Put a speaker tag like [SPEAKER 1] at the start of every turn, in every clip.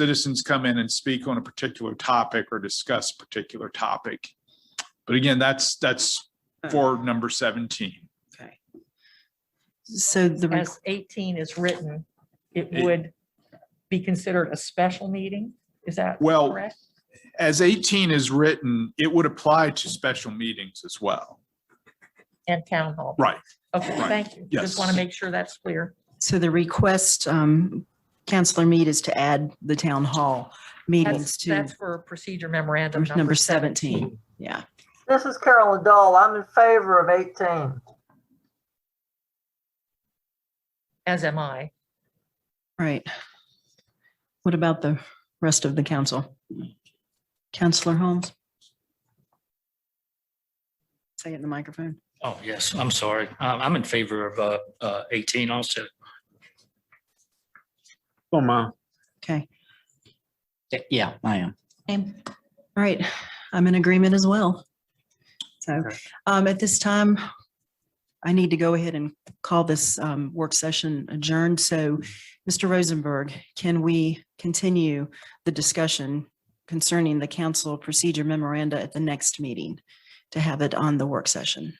[SPEAKER 1] citizens come in and speak on a particular topic or discuss a particular topic. But again, that's, that's for number seventeen.
[SPEAKER 2] Okay.
[SPEAKER 3] So the, re-
[SPEAKER 4] as eighteen is written, it
[SPEAKER 1] It-
[SPEAKER 4] would be considered a special meeting? Is that
[SPEAKER 1] Well-
[SPEAKER 4] correct?
[SPEAKER 1] As eighteen is written, it would apply to special meetings as well.
[SPEAKER 4] And town hall?
[SPEAKER 1] Right.
[SPEAKER 4] Okay,
[SPEAKER 1] Right.
[SPEAKER 4] thank you. Just want
[SPEAKER 1] Yes.
[SPEAKER 4] to make sure that's clear.
[SPEAKER 3] so the request, um, Counselor Mead is to add the town hall meetings
[SPEAKER 4] That's,
[SPEAKER 3] to
[SPEAKER 4] that's for procedure memorandum
[SPEAKER 3] number 17. Yeah.
[SPEAKER 5] This is Carolyn Dahl. I'm in favor of 18.
[SPEAKER 4] As am I.
[SPEAKER 3] Right. What about the rest of the council? Counselor Holmes? Say it in the microphone.
[SPEAKER 6] Oh, yes, I'm sorry. Um, I'm in favor of uh, uh, 18 also.
[SPEAKER 7] Oh, my.
[SPEAKER 3] Okay.
[SPEAKER 8] Yeah, I am.
[SPEAKER 3] All right. I'm in agreement as well. So
[SPEAKER 7] Okay.
[SPEAKER 3] um, at this time, I need to go ahead and call this um, work session adjourned. So Mr. Rosenberg, can we continue the discussion concerning the council procedure memoranda at the next meeting to have it on the work session?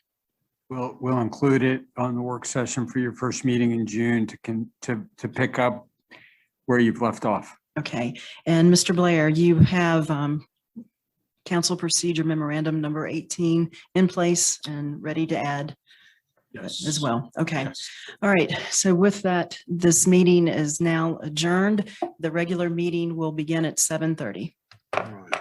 [SPEAKER 7] We'll, we'll include it on the work session for your first meeting in June to can, to, to pick up where you've left off.
[SPEAKER 3] Okay, and Mr. Blair, you have um, council procedure memorandum number 18 in place and ready to add as well. Okay,
[SPEAKER 1] Yes.
[SPEAKER 3] all right. So with that, this meeting is now adjourned. The regular meeting will begin at 7:30.
[SPEAKER 7] All right.